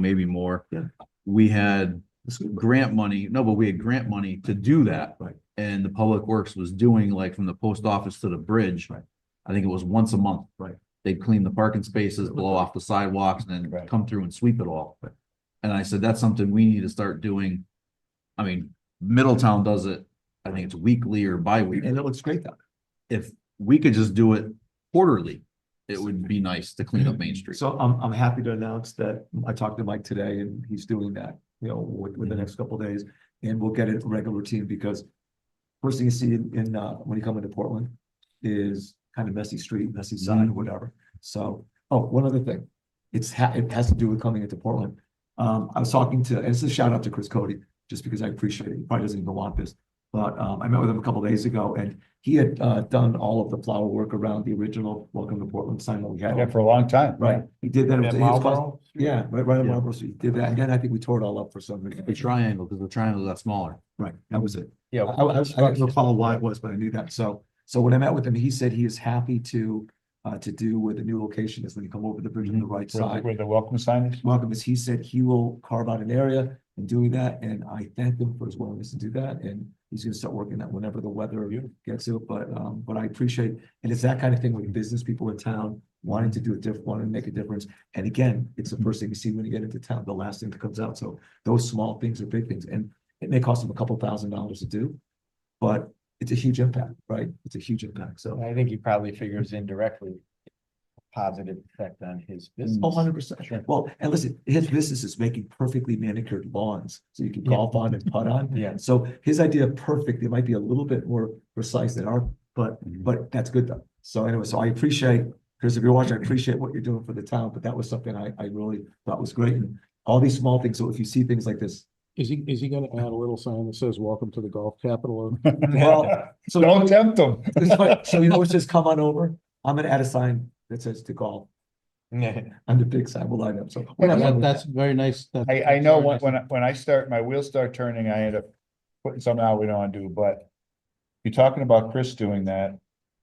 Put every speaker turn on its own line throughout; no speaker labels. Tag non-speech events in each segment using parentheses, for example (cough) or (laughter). maybe more.
Yeah.
We had grant money, no, but we had grant money to do that.
Right.
And the Public Works was doing like from the post office to the bridge.
Right.
I think it was once a month.
Right.
They'd clean the parking spaces, blow off the sidewalks and then
Right.
come through and sweep it all.
Right.
And I said, that's something we need to start doing. I mean, Middletown does it, I think it's weekly or bi-weekly.
And it looks great down
If we could just do it quarterly, it would be nice to clean up Main
there.
Street.
So I'm, I'm happy to announce that I talked to Mike today and he's doing that, you know, with, with the next couple days. And we'll get it a regular routine because first thing you see in, in, uh, when you come into Portland is kind of messy street, messy side,
Mhm.
whatever. So, oh, one other thing. It's ha, it has to do with coming into Portland. Um, I was talking to, and this is a shout out to Chris Cody, just because I appreciate it. He probably doesn't even want this. But, um, I met with him a couple days ago and he had, uh, done all of the flower work around the original Welcome to Portland sign that we had.
Yeah, for a long time.
Right, he did that. It was
At
his first-
Marlboro?
Yeah, right, right on
Yeah.
Marlboro Street, did that, and then I think we tore it all up for some reason.
The triangle, because the triangle got smaller.
Right, that was it.
Yeah.
I, I, I don't recall why it was, but I knew that, so, so when I met with him, he said he is happy to, uh, to do where the new location is, when you come over the bridge on Mm-hmm. the right
Where
side.
where the welcome sign is.
Welcome, as he said, he will carve out an area and doing that, and I thank him for his willingness to do that, and he's gonna start working that whenever the weather
Beautiful.
gets to it, but, um, but I appreciate, and it's that kind of thing with business people in town wanting to do a diff, wanting to make a difference. And again, it's the first thing you see when you get into town, the last thing that comes out, so those small things are big things, and it may cost them a couple thousand dollars to do, but it's a huge impact, right? It's a huge impact, so.
I think he probably figures indirectly positive effect on his business.
Oh, 100 percent. Well, and listen, his business is making perfectly manicured lawns, so you can golf on and putt on.
Yeah.
So his idea of perfect, it might be a little bit more precise than our, but,
Mhm.
but that's good though. So anyway, so I appreciate, Chris, if you're watching, I appreciate what you're doing for the town, but that was something I, I really thought was great. And all these small things, so if you see things like this.
Is he, is he gonna add a little sign that says, welcome to the golf capital of?
(laughs) Well, so,
Don't tempt them.
so you know, it says come on over. I'm gonna add a sign that says to golf (laughs) and the big sign will line up, so. we're not
Yeah,
having-
That's very nice. that-
I, I know when, when, I- when I start, my wheels start turning, I end up putting something out we don't want to do, but you're talking about Chris doing that,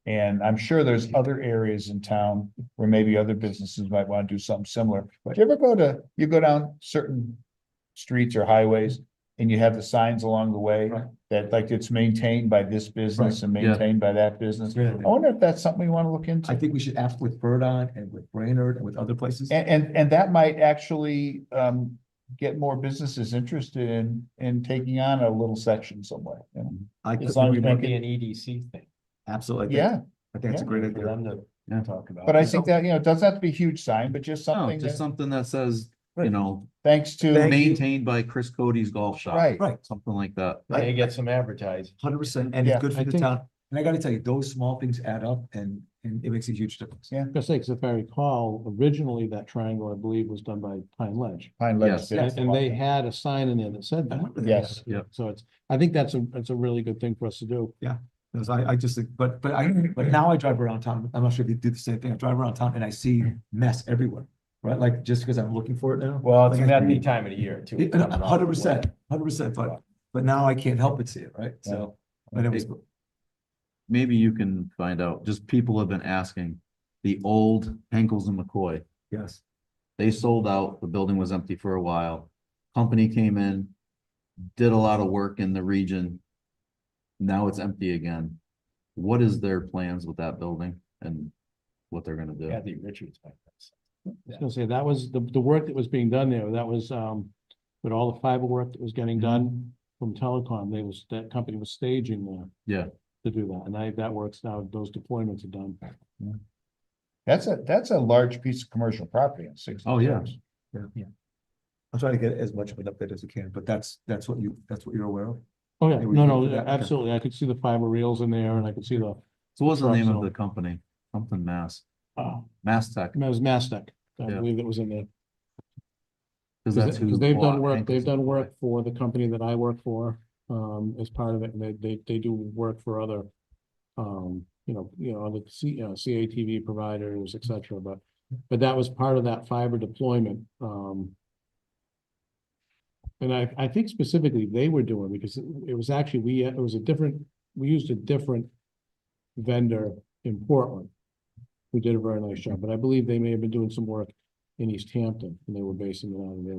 and I'm sure there's other areas in town where maybe other businesses might want to do something similar. Do you ever go to, you go down certain streets or highways and you have the signs along the way
Right.
that like it's maintained by this business and
Right, yeah.
maintained by that business?
Really.
I wonder if that's something we want to look into.
I think we should ask with Verdon and with Brainerd and with other places.
And, and, and that might actually, um, get more businesses interested in, in taking on a little section somewhere. you know?
I
As
could,
long as
It
we
might
make
be
it,
an EDC thing.
absolutely. I think-
yeah,
I think it's a
yeah,
great
For
idea.
them to
Yeah.
talk about.
but I
it.
think that, you know, it doesn't have to be a huge sign, but just
No,
something,
just
that-
something that says, you
Right.
know,
thanks to,
maintained by Chris Cody's Golf Shop.
right,
Right,
Something like that.
They get some advertising.
hundred percent, and it's
Yeah,
good for
I
the
think-
town. And I gotta tell you, those small things add up and, and it makes a huge difference.
Yeah.
Because like, if I recall, originally that triangle, I believe, was done by Pine Ledge. Uh-huh.
Pine
Yes.
Ledge. did
And
it.
and they had a sign in there that said
I
that.
remember that.
Yes.
Yep.
So it's, I think that's a, that's a really good thing for us to do.
Because I, I just, think- but, but I, but now I drive around town, I'm not sure if you do the same thing, I drive around town and I see mess everywhere, right? Like, just because I'm looking for it now.
Well, it's
Like,
not the time of the year too.
Yeah, no, a Hundred percent, hundred percent, but, but now I can't help but see it, right? So, but it was,
Maybe you can find out, just people have been asking, the old Henkels and McCoy,
yes,
they sold out, the building was empty for a while. Company came in, did a lot of work in the region. Now it's empty again. What is their plans with that building and what they're gonna do?
Kathy Richards. might know something.
I was gonna say, that was the, the work that was being done there, that was, um, with all the fiber work that was getting done from telecom, they was, that company was staging there.
Yeah.
To do that, and I, that works now, those deployments are done.
That's a, that's a large piece of commercial property in sixty.
Oh, yeah.
acres.
I'm trying to get as much of an update as I can, but that's, that's what you, that's what you're aware of?
Oh, yeah,
Maybe we
no,
can do
no,
that, okay.
absolutely, I could see the fiber reels in there, and I could see the,
So what's the name of the company? Something Mass,
uh,
Mass Tech,
it was Mastech, I
Yeah.
believe that was in there.
because that's
Because
who.
they've
bought
done work,
Henkels
they've
and
done
McCoy.
work for the company that I work for, um, as part of it, and they, they, they do work for other, um, you know, you know, other C, you know, CATV providers, et cetera, but, but that was part of that fiber deployment, um. And I, I think specifically they were doing, because it it was actually, we, it was a different, we used a different vendor in Portland. Who did a very nice job, but I believe they may have been doing some work in East Hampton, and they were basing it out of there.